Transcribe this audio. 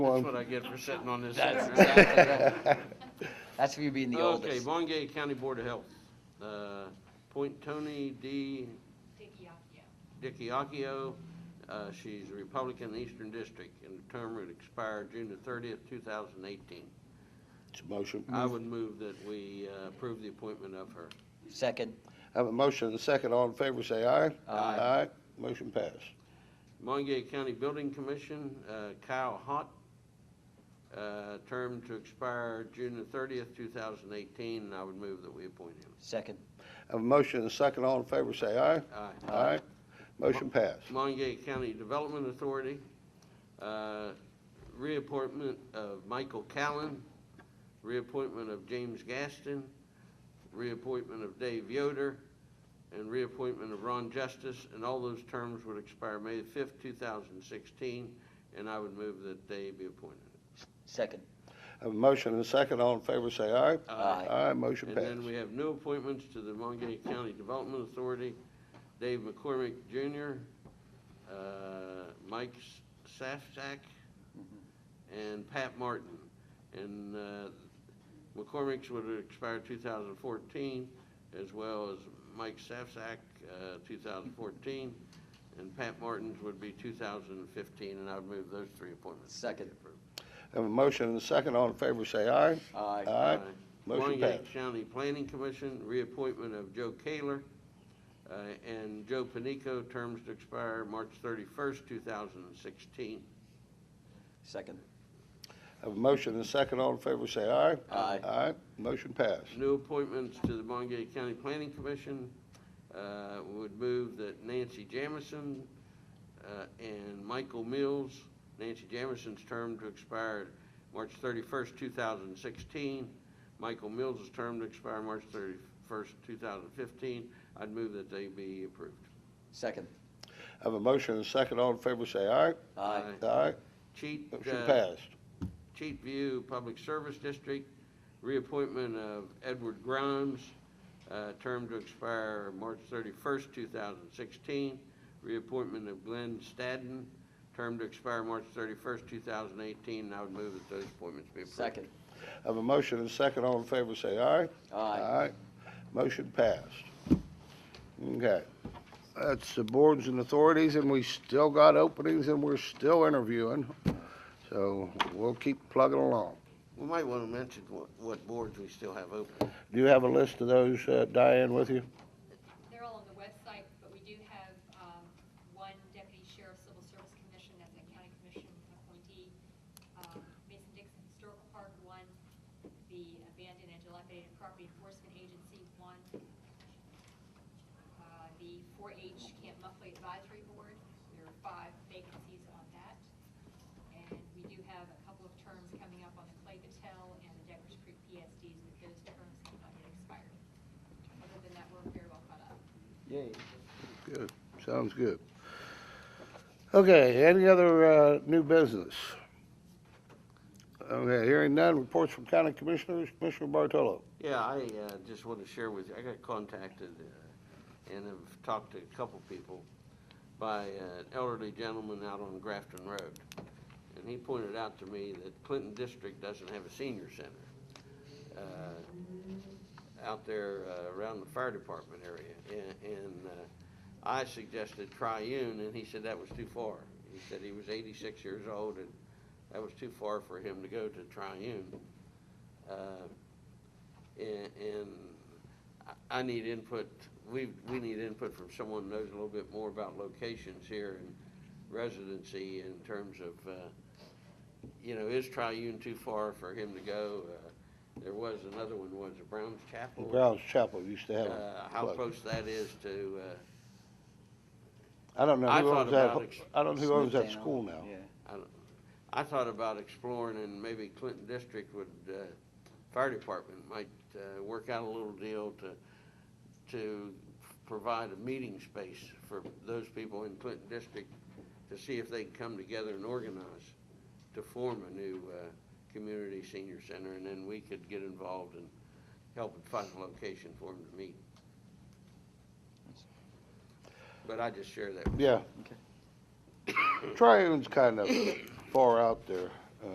That's One. what I get for sitting on this. That's sitting around. That's for you being the Okay, oldest. Bungay County Board of Health, uh, appoint Tony D. Dickiacchio. Uh, she's a Republican Eastern District, and the term would expire June the thirtieth, two thousand eighteen. It's a motion. I would move that we uh, approve the appointment of her. Second, Have a motion and a second. All in favor, say aye. Aye. Aye. Motion passed. Montague County Building Commission, uh, Kyle Hott, uh, term to expire June the thirtieth, two thousand eighteen, and I would move that we appoint him. second, Have a motion and a second. All in favor, say aye. Aye. Aye. Motion passed. Montague County Development Authority, uh, reappointment of Michael Callen, reappointment of James Gaston, reappointment of Dave Yoder, and reappointment of Ron Justice, and all those terms would expire May the fifth, two thousand sixteen, and I would move that they be appointed. second. Have a motion and a second. All in favor, say aye. Aye. Aye. Motion And then we passed. have new appointments to the Montague County Development Authority, Dave McCormick Jr., uh, Mike Safsack, and Pat Martin. And uh, McCormick's would expire 2014, as well as Mike Safsack, uh, 2014, and Pat Martin's would be 2015, and I would move those three appointments. Second. Have a motion and a second. All in favor, say aye. Aye, Aye. Montague Motion passed. Uh, County Planning Commission, reappointment of Joe Kaler uh, and Joe Panico, terms to expire March 31st, 2016. second, Have a motion and a second. All in favor, say aye. Aye. Aye. Motion passed. New appointments to the Montague County Planning Commission uh, would move that Nancy Jamison uh, and Michael Mills, Nancy Jamison's term to expire March 31st, 2016, Michael Mills' term to expire March 31st, 2015. I'd move that they be approved. second. Have a motion and a second. All in favor, say aye. Aye, Aye. Cheat, Motion uh, passed. Cheat View Public Service District, reappointment of Edward Grimes, uh, term to expire March thirty-first, two thousand sixteen. Reappointment of Glenn Stadden, term to expire March thirty-first, two thousand eighteen, and I would move that those appointments be approved. second. Have a motion and a second. All in favor, say aye. Aye, Motion passed. Okay. That's the boards and authorities, and we still got openings, and we're still interviewing. So we'll keep plugging along. We might want to mention what, what boards we still have open. Do you have a list of those, uh, Diane, with you? They're all on the website, but we do have um, one deputy sheriff civil service commission that's a county commission appointee. um, Mason Dixon Historical Park, one. The Abandoned and Dilapidated Property Enforcement Agency, one. Uh, The 4H Camp Muffley Advisory Board, there are five vacancies on that. And we do have a couple of terms coming up on the Clay Patel and the Deckers Creek PSDs, but those terms have not yet expired. Other than that, we're very well caught up. Good. Sounds good. Okay, any other, uh, new business? Okay, hearing none. Reports from county commissioners. Commissioner Bartolo. Yeah, I uh, just want to share with you, I got contacted uh, and have talked to a couple people by uh, an elderly gentleman out on Grafton Road. And he pointed out to me that Clinton District doesn't have a senior center uh, out there uh, around the fire department area. And- And uh, I suggested Triune, and he said that was too far. He said he was 86 years old, and that was too far for him to go to Triune. Uh, and, and I, I need input, we, we need input from someone who knows a little bit more about locations here and residency in terms of, uh, you know, is Triune too far for him to go? Uh, There was another one, was it Brown's Chapel? Browns Chapel used to have Uh, a how plug. close that is to, uh, I don't know I who thought owns that, about ex- I don't know who owns that Smithtown, school now. yeah. I thought about exploring and maybe Clinton District would, uh, fire department might, uh, work out a little deal to, to provide a meeting space for those people in Clinton District to see if they can come together and organize to form a new, uh, community senior center and then we could get involved and help and find a location for them to meet. But I just share that. Yeah. Okay. Triune's kind of far out there.